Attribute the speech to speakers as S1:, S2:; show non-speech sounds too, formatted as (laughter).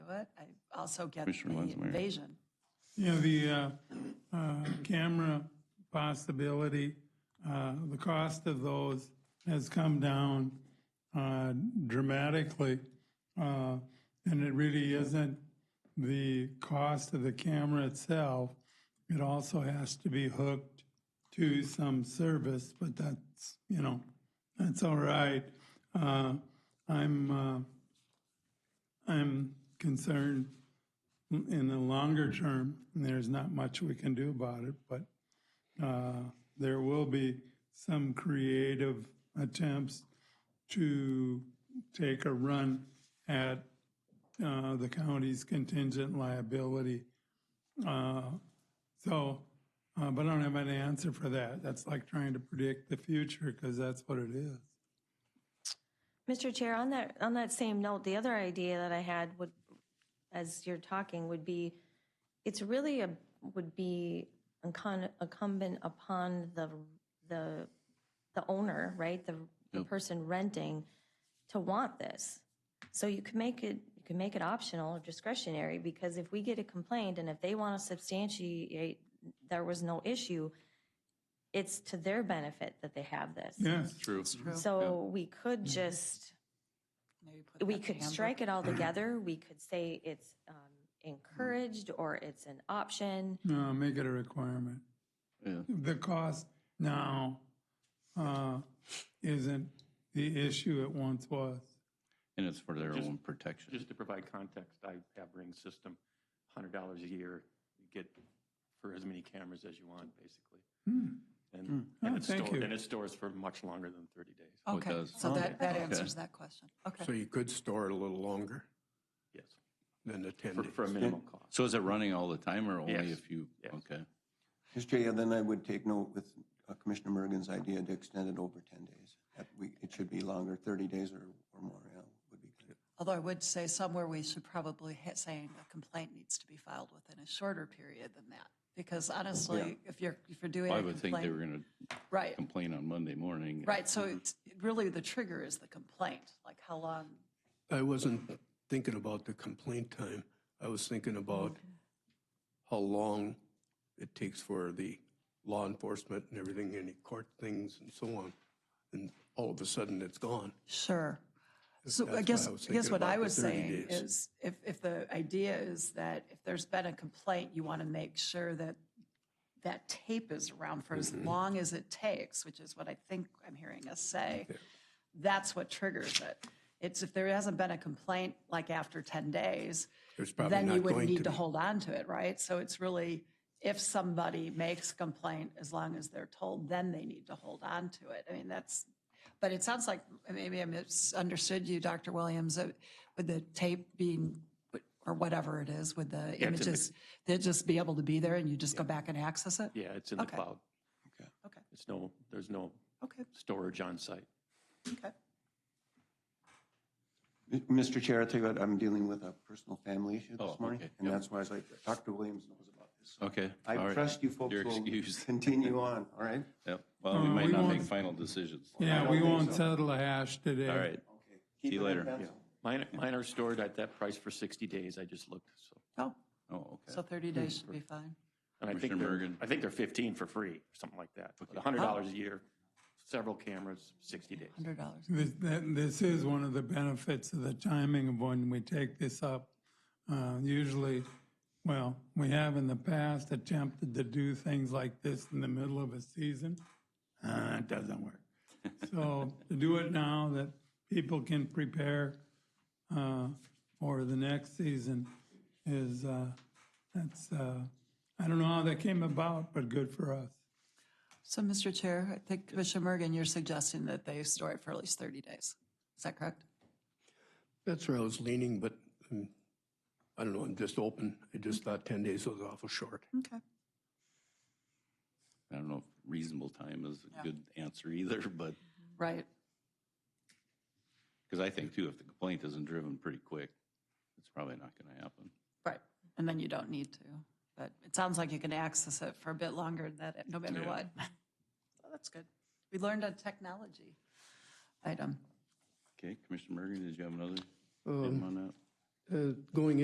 S1: also get the
S2: Commissioner Lenzmeyer.
S1: invasion.
S3: Yeah, the uh, uh, camera possibility, uh, the cost of those has come down uh, dramatically. uh, And it really isn't the cost of the camera itself. It also has to be hooked to some service, but that's, you know, that's all right. Uh, I'm, uh, I'm concerned in the longer term, there's not much we can do about it, but uh, there will be some creative attempts to take a run at uh, the county's contingent liability. Uh, So, uh, but I don't have an answer for that. That's like trying to predict the future because that's what it is.
S4: Mr. Chair, on that, on that same note, the other idea that I had would, as you're talking, would be, it's really a, would be incon- incumbent upon the, the, the owner, right? The, the person renting to want this. So you can make it, you can make it optional or discretionary, because if we get a complaint and if they want to substantiate there was no issue, it's to their benefit that they have this.
S3: Yes,
S2: True.
S4: So we could just
S1: Maybe put
S4: we
S1: that
S4: could
S1: handbook.
S4: strike
S1: (clears throat)
S4: it all together. We could say it's um, encouraged or it's an option.
S3: No, Uh, make it a requirement.
S2: Yeah.
S3: the cost now uh, isn't the issue it once was.
S2: And it's for their
S5: Just-
S2: own protection.
S5: Just to provide context, I have Ring System, $100 a year, you get for as many cameras as you want, basically.
S6: Hmm.
S5: And,
S3: Oh,
S5: and it
S3: thank
S5: stores,
S3: you.
S5: and it stores for much longer than 30 days.
S2: Oh, it
S1: Okay,
S2: does.
S1: so that, that
S2: Okay.
S1: answers that question.
S6: So
S1: Okay.
S6: you could store it a little longer
S5: Yes,
S6: than the 10
S5: for,
S6: days.
S5: for a minimal cost.
S2: So is it running all the time or only
S5: Yes.
S2: if you,
S5: Yes.
S2: okay.
S7: Mr. Chair, yeah, then I would take note with uh, Commissioner Mergen's idea to extend it over 10 days. That we- It should be longer, 30 days or or more, yeah, would be good.
S1: Although I would say somewhere we should probably ha- saying a complaint needs to be filed within a shorter period than that. Because honestly, if you're, if you're doing
S2: Well, I
S1: a
S2: would think Mm-hmm. they were
S1: complaint,
S2: going to
S1: right,
S2: complain on Monday morning.
S1: right. So it's, really the trigger is the complaint, like how long,
S6: I wasn't thinking about the complaint time. I was thinking about how long it takes for the law enforcement and everything, any court things and so on. And all of a sudden, it's gone.
S1: Sure. So
S6: that's
S1: I
S6: what
S1: guess,
S6: I
S1: I
S6: was
S1: guess
S6: thinking
S1: what
S6: about
S1: I
S6: the
S1: was
S6: 30
S1: saying
S6: days.
S1: is, if, if the idea is that if there's been a complaint, you want to make sure that that tape is around for
S6: Mm-hmm.
S1: as long as it takes, which is what I think I'm hearing us say, that's what triggers it. It's if there hasn't been a complaint, like after 10 days,
S6: There's probably
S1: then you
S6: not
S1: would
S6: going
S1: need
S6: to
S1: to
S6: be.
S1: hold on to it, right? So it's really, if somebody makes complaint, as long as they're told, then they need to hold on to it. I mean, that's, but it sounds like, maybe I misunderstood you, Dr. Williams, uh, with the tape being, or whatever it is, with the
S5: in the-
S1: images, they'd just be able to be there and you just go back and access it?
S5: Yeah, it's in the
S1: Okay.
S5: cloud.
S1: Okay,
S5: It's no, there's no
S3: Oh.
S1: okay,
S5: storage on site.
S1: okay.
S7: M- Mr. Chair, I tell you what, I'm dealing with a personal family issue
S2: Oh,
S7: this morning,
S2: okay,
S7: and
S2: yeah.
S7: that's why I was like, Dr. Williams knows about this.
S2: Okay. all
S7: I
S2: right.
S7: trust you folks
S2: You're
S7: will
S2: excused.
S7: continue on, all right?
S2: Yep. Well, we
S3: Uh,
S2: might
S3: we
S2: not make
S3: won't-
S2: final decisions.
S3: Yeah,
S7: don't
S3: we
S7: think
S3: won't
S7: so.
S3: settle a hash today.
S2: All right.
S7: Keep
S2: you
S7: it at
S2: later.
S7: pencil.
S5: Mine, mine are stored at that price for 60 days, I just looked, so.
S1: Oh,
S2: Oh,
S1: so
S2: okay.
S1: 30 days should be fine.
S5: And I think
S2: Commissioner
S5: they're,
S2: Mergen.
S5: I think they're 15 for free, or something like that. But $100
S3: Oh.
S5: a year, several cameras, 60 days.
S1: $100.
S3: This, that, this is one of the benefits of the timing of when we take this up. Uh, usually, well, we have in the past attempted to do things like this in the middle of a season. Uh, it doesn't work. So to do it now that people can prepare uh, for the next season is, uh, that's, uh, I don't know how that came about, but good for us.
S1: So, Mr. Chair, I think Commissioner Mergan, you're suggesting that they store it for at least 30 days. Is that correct?
S6: That's where I was leaning, but mm, I don't know, I'm just open. I just thought 10 days was awful short.
S1: Okay.
S2: I don't know if reasonable time is a good answer either, (laughs) but,
S1: Right.
S2: because I think too, if the complaint isn't driven pretty quick, it's probably not going to happen.
S1: Right. And then you don't need to. But it sounds like you can access it for a bit longer than that, no matter
S2: Yeah.
S1: what. (laughs) So that's good. We learned a technology item.
S3: Um,
S2: Okay, Commissioner Mergen, did you have another item on that?
S6: Uh, Going